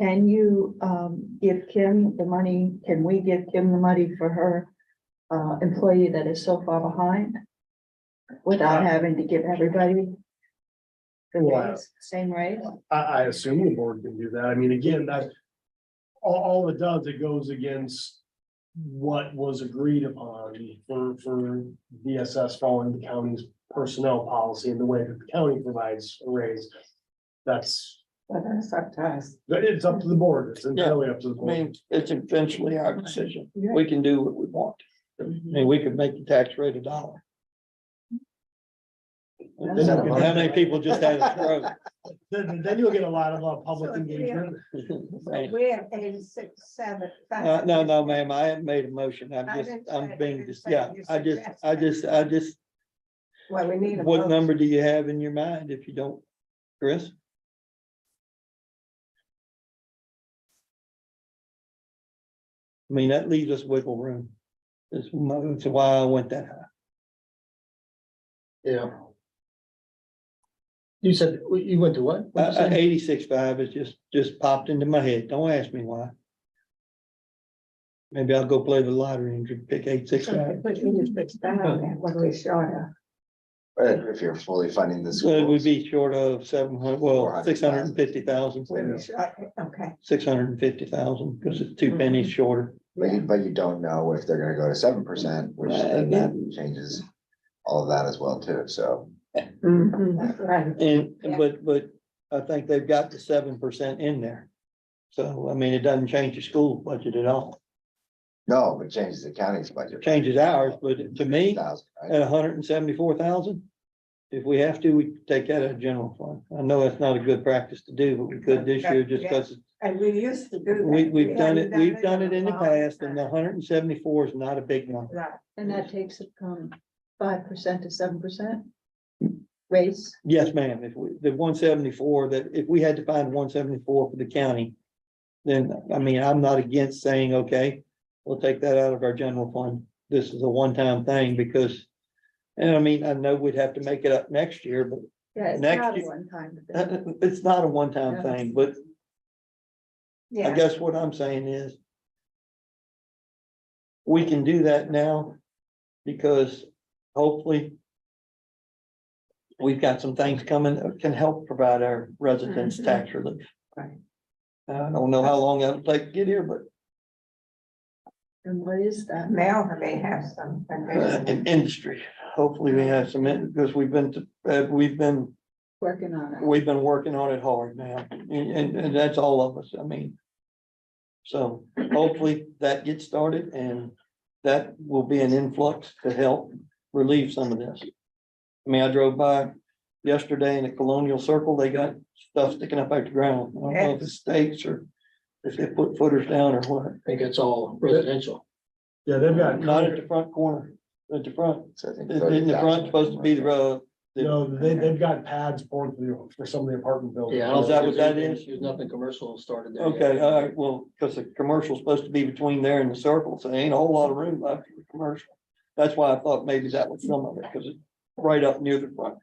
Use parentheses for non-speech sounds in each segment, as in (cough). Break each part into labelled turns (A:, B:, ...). A: Can you, um, give Kim the money? Can we give Kim the money for her, uh, employee that is so far behind? Without having to give everybody the
B: Wow.
A: raise, same raise?
B: I, I assume the board can do that. I mean, again, that. All, all it does, it goes against. What was agreed upon for, for DSS following the county's personnel policy and the way that the county provides a raise. That's,
A: But that's up to us.
B: that it's up to the board. It's entirely up to the
C: I
B: board.
C: mean, it's eventually our decision.
A: Yeah.
C: We can do what we want. I mean, we could make the tax rate a dollar. Then
A: That's
B: not a
C: How many people just had a stroke?
B: Then, then you'll get a lot of uh, public engagement.
A: (laughs)
D: We have eighty-six, seven.
C: Uh, no, no, ma'am, I haven't made a motion. I'm
D: I
C: just,
D: didn't say-
C: I'm
D: I
C: being,
D: didn't
C: just
D: say
C: yeah,
D: you
C: I just,
D: suggest
C: I
D: that.
C: just, I just,
D: Well, we need. a
C: what
D: vote.
C: number do you have in your mind if you don't, Chris? I mean, that leaves us wiggle room. That's mo- That's why I went that high.
E: Yeah. You said, you went to what? What'd you
C: Uh,
E: say?
C: Eighty-six five is just, just popped into my head. Don't ask me why. Maybe I'll go play the lottery and pick eight, six, five.
D: But you just fixed that, what we short of.
F: But if you're fully funding the
C: So it would
F: schools,
C: be short of seven hundred, well, six hundred and fifty thousand,
D: we were short, okay.
C: six hundred and fifty thousand, because it's two pennies shorter.
F: but you, but you don't know if they're gonna go to seven percent, which
C: Right,
F: then that
C: yeah.
F: changes all of that as well too, so.
D: That's right.
C: And,
D: Yeah.
C: but, but I think they've got the seven percent in there. So, I mean, it doesn't change the school budget at all.
F: No, it changes the county's budget.
C: Changes ours, but to me, uh,
F: Thousand, right?
C: at hundred and seventy-four thousand. If we have to, we could take that out of general fund. I know that's not a good practice to do, but we could this year just because
D: And we used to do. that.
C: we, we've done it,
D: haven't
C: we've done it in the
D: a long
C: past and the
D: time.
C: hundred and seventy-four is not a big number.
D: Right.
A: And that takes it from five percent to seven percent raise.
C: Yes, ma'am. If we, the one seventy-four, that if we had to find one seventy-four for the county, then, I mean, I'm not against saying, okay, we'll take that out of our general fund. This is a one-time thing because, and I mean, I know we'd have to make it up next year, but (laughs)
A: Yeah, it's
C: Next
A: not a
C: year-
A: one-time
C: Uh, (laughs)
A: thing.
C: It's not a one-time
A: Yeah.
C: thing, but I
D: Yeah,
C: guess what I'm saying is. We can do that now because hopefully. We've got some things coming that can help provide our residents tax relief.
A: Right.
C: I don't know how long that'll take to get here, but
A: And what is that?
D: Mel may have some.
C: uh, in industry, hopefully we have some, in- because we've been, to- uh, we've been
A: Working on it.
C: we've been working on it hard now, and, and, and that's all of us, I mean. So hopefully that gets started and that will be an influx to help relieve some of this. I mean, I drove by yesterday in the Colonial Circle, they got stuff sticking up out the ground, I don't know if it's stakes or if they put footers down or what,
E: I think it's all residential.
B: Yeah, they've got.
C: not at the front corner, at the front,
F: So I think
C: in the
F: 30,000
C: front supposed to be the, uh,
B: No, they, they've got pads poured for the, for some of the apartment buildings.
E: Yeah. I
C: Oh,
E: don't
C: is that
E: think
C: what that
E: there's
C: is?
E: anything- There's nothing commercial started there. yet.
C: Okay, all right, well, because the commercial's supposed to be between there and the circle, so there ain't a whole lot of room left for the commercial. That's why I thought maybe that was some of it, because it's right up near the front.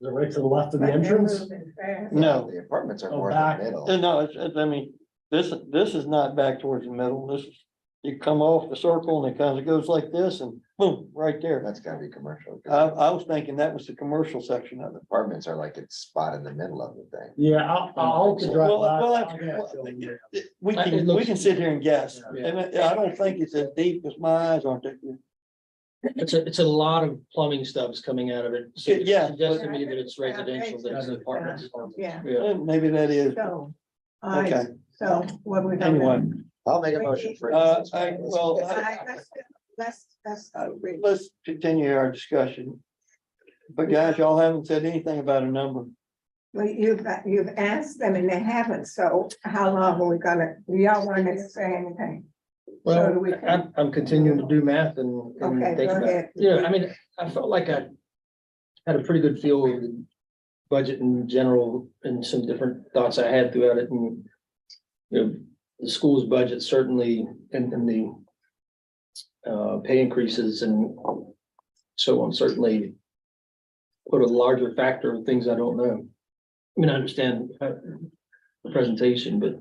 B: Is it right to the left of the entrance?
F: Mm.
C: No,
F: The apartments are
B: Oh,
F: more in
B: back.
F: the middle.
C: no, it's, it's, I mean, this, this is not back towards the middle, this is, you come off the circle and it kind of goes like this and boom, right there.
F: That's gotta be commercial. 'cause
C: I, I was thinking that was the commercial section of it.
F: Apartments are like it's spot in the middle of the thing.
B: Yeah, I'll, I'll drive by.
C: Well, well,
B: I'll
C: that's-
B: get
C: well,
B: it.
C: it- it- We
E: It
C: can, we
E: looks-
C: can sit here and guess,
E: Yeah.
C: and I I don't think it's as deep as my eyes aren't that.
E: It's a, it's a lot of plumbing stubs coming out of it. So
C: Yeah, yeah,
E: it Suggests to me that it's residential, that it's apartments.
D: Yeah,
E: Yeah.
C: Eh, Maybe that is,
D: so, all
C: okay,
D: right, so what we. gonna do?
C: anyway.
F: I'll make a motion for.
C: Uh, I, well,
D: All
C: I-
D: right, Let's, let's, let's.
C: I-
D: read.
C: let's continue our discussion. But guys, y'all haven't said anything about a number.
D: Well, you've, you've asked them and they haven't, so how long are we gonna, do y'all wanna say anything? So do
E: Well,
D: we-
E: I'm, I'm continuing to do math and. and
D: Okay,
E: think
D: go
E: about it.
D: ahead.
E: Yeah, I mean, I felt like I had a pretty good feel of the budget in general and some different thoughts I had throughout it and. You know, the school's budget certainly and, and the uh, pay increases and so on certainly put a larger factor of things I don't know. I mean, I understand uh, the presentation, but